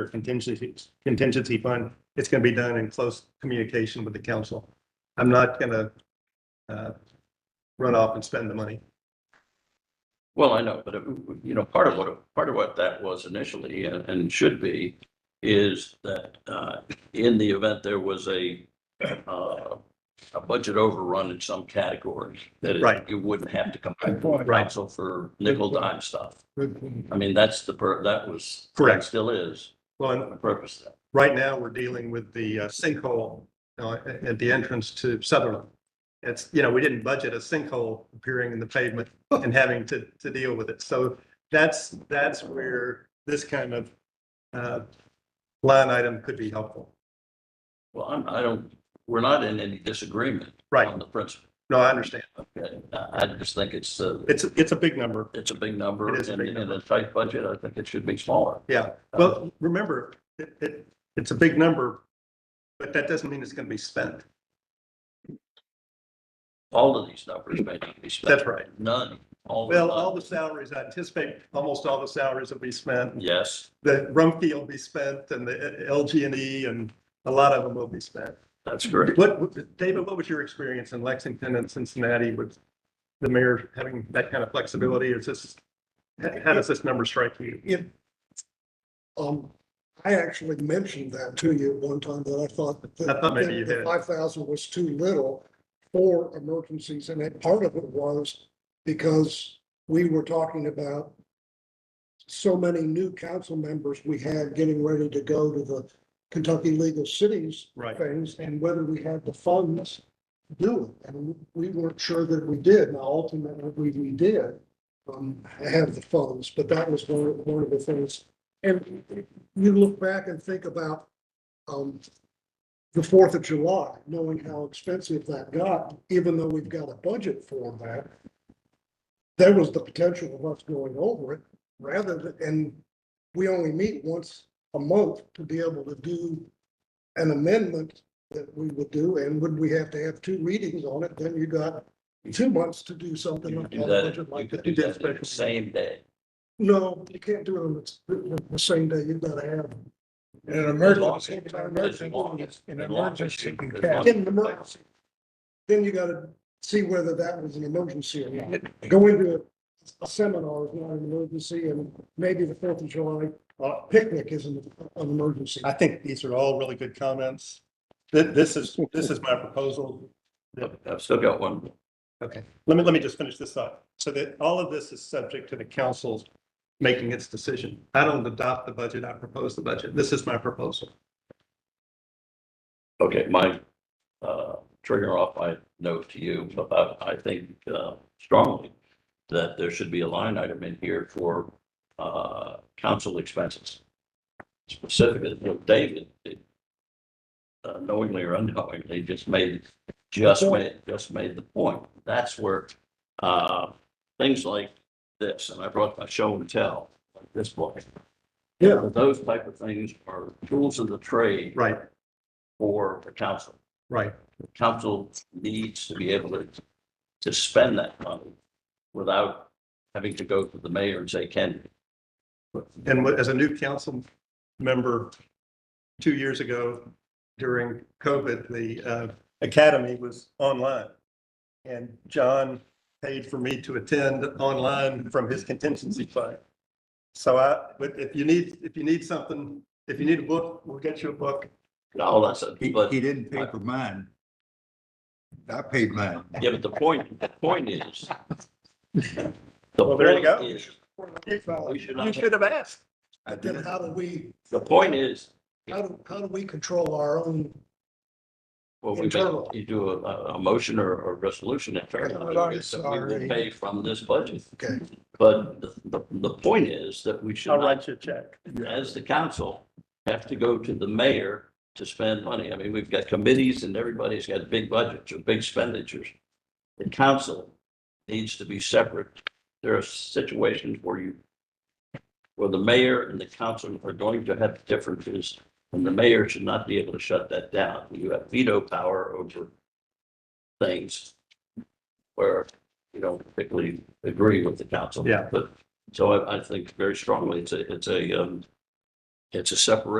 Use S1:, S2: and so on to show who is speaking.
S1: or contingency, contingency fund, it's gonna be done in close communication with the council. I'm not gonna, uh, run off and spend the money.
S2: Well, I know, but it- you know, part of what, part of what that was initially and and should be is that uh, in the event there was a uh, a budget overrun in some category, that
S1: Right.
S2: it- you wouldn't have to come back to the
S1: Right.
S2: council for nickel dime stuff.
S1: Well,
S2: I mean, that's the, pur- that was.
S1: Correct.
S2: Still is
S1: and
S2: the purpose of that.
S1: right now, we're dealing with the uh, sinkhole uh, at at the entrance to Sutherland. It's, you know, we didn't budget a sinkhole appearing in the pavement and having to, to deal with it. So that's, that's where this kind of uh, line item could be helpful.
S2: Well, I'm, I don't, we're not in any disagreement
S1: Right.
S2: on the principle.
S1: No, I understand.
S2: Okay, I I just think it's, uh,
S1: It's, it's a big number.
S2: it's a big number.
S1: It is a
S2: and
S1: big
S2: In a
S1: number.
S2: tight budget, I think it should be smaller.
S1: Yeah. Well, remember, it, it, it's a big number, but that doesn't mean it's going to be spent.
S2: all of these numbers may not be spent.
S1: That's right.
S2: None, all. of
S1: Well,
S2: them.
S1: all the salaries, I anticipate almost all the salaries will be spent.
S2: Yes,
S1: the Rumpke will be spent and the LG and E and a lot of them will be spent.
S2: that's correct.
S1: What, what- David, what was your experience in Lexington and Cincinnati with the mayor having that kind of flexibility? Is this, how does this number strike you?
S3: it, um, I actually mentioned that to you at one time that I thought that.
S1: I thought maybe you had.
S3: Five thousand was too little for emergencies, and that part of it was because we were talking about so many new council members we had getting ready to go to the Kentucky Legal Cities
S1: Right.
S3: things and whether we had the funds to do it. And we weren't sure that we did. Now ultimately, we, we did um, have the funds, but that was one, of- one of the things. And you look back and think about um, the Fourth of July, knowing how expensive that got, even though we've got a budget for that. There was the potential of us going over it rather than, and we only meet once a month to be able to do an amendment that we would do, and would we have to have two readings on it, then you got two months to do something
S2: You
S3: like
S2: could do
S3: that. a
S2: that,
S3: budget
S2: you
S3: like
S2: could
S3: that.
S2: do
S1: did
S2: that in
S1: special-
S2: the same day.
S3: No, you can't do it on the, the same day, you've got to have.
S4: In an
S2: As long as-
S4: emergency, in an
S2: as long
S4: emergency,
S2: as-
S4: in
S2: as
S4: an
S2: long as
S4: emergency,
S2: you-
S4: you can
S2: as
S4: cash.
S2: long as-
S3: In an emergency. Then you got to see whether that was an emergency or not. Go into a- a seminar is not an emergency, and maybe the Fourth of July uh, picnic isn't an emergency.
S1: I think these are all really good comments. Th- This is, this is my proposal.
S2: I've- I've still got one.
S1: Okay, let me, let me just finish this up. So that all of this is subject to the council making its decision. I don't adopt the budget, I propose the budget. This is my proposal.
S2: Okay, my, uh, trigger off my note to you about, I think, uh, strongly that there should be a line item in here for, uh, council expenses. Specifically, you know, David, did, uh, knowingly or unknowingly, just made, just made, just made the point. That's where, uh, things like this, and I brought my show and tell, like this book.
S3: Yeah.
S2: Those type of things are tools of the trade
S1: Right,
S2: for the council.
S1: right.
S2: The council needs to be able to, to spend that money without having to go to the mayor and say, can.
S1: And what- as a new council member, two years ago during COVID, the uh, academy was online. And John paid for me to attend online from his contingency fund. So I, but if you need, if you need something, if you need a book, we'll get you a book.
S2: No, that's, a-
S4: He,
S2: but,
S4: he didn't pay for mine. I paid mine.
S2: yeah, but the point, the point is. The
S1: Well, there you
S2: point
S1: go.
S2: is,
S3: How
S2: we should not,
S1: have asked.
S4: I did.
S3: do we,
S2: the point is,
S3: how do, how do we control our own,
S2: well, we may,
S3: Internal.
S2: you do a, a motion or a resolution in fair.
S3: I'm already
S2: that We will
S3: sorry.
S2: pay from this budget,
S3: okay?
S2: but the, the, the point is that we should
S1: I'll
S2: not
S1: write you a check.
S2: as the council, have to go to the mayor to spend money. I mean, we've got committees and everybody's got big budgets or big expenditures. The council needs to be separate. There are situations where you, where the mayor and the council are going to have differences, and the mayor should not be able to shut that down. You have veto power over things where you don't particularly agree with the council.
S1: Yeah.
S2: But, so I, I think very strongly, it's a, it's a, um, It's a separation.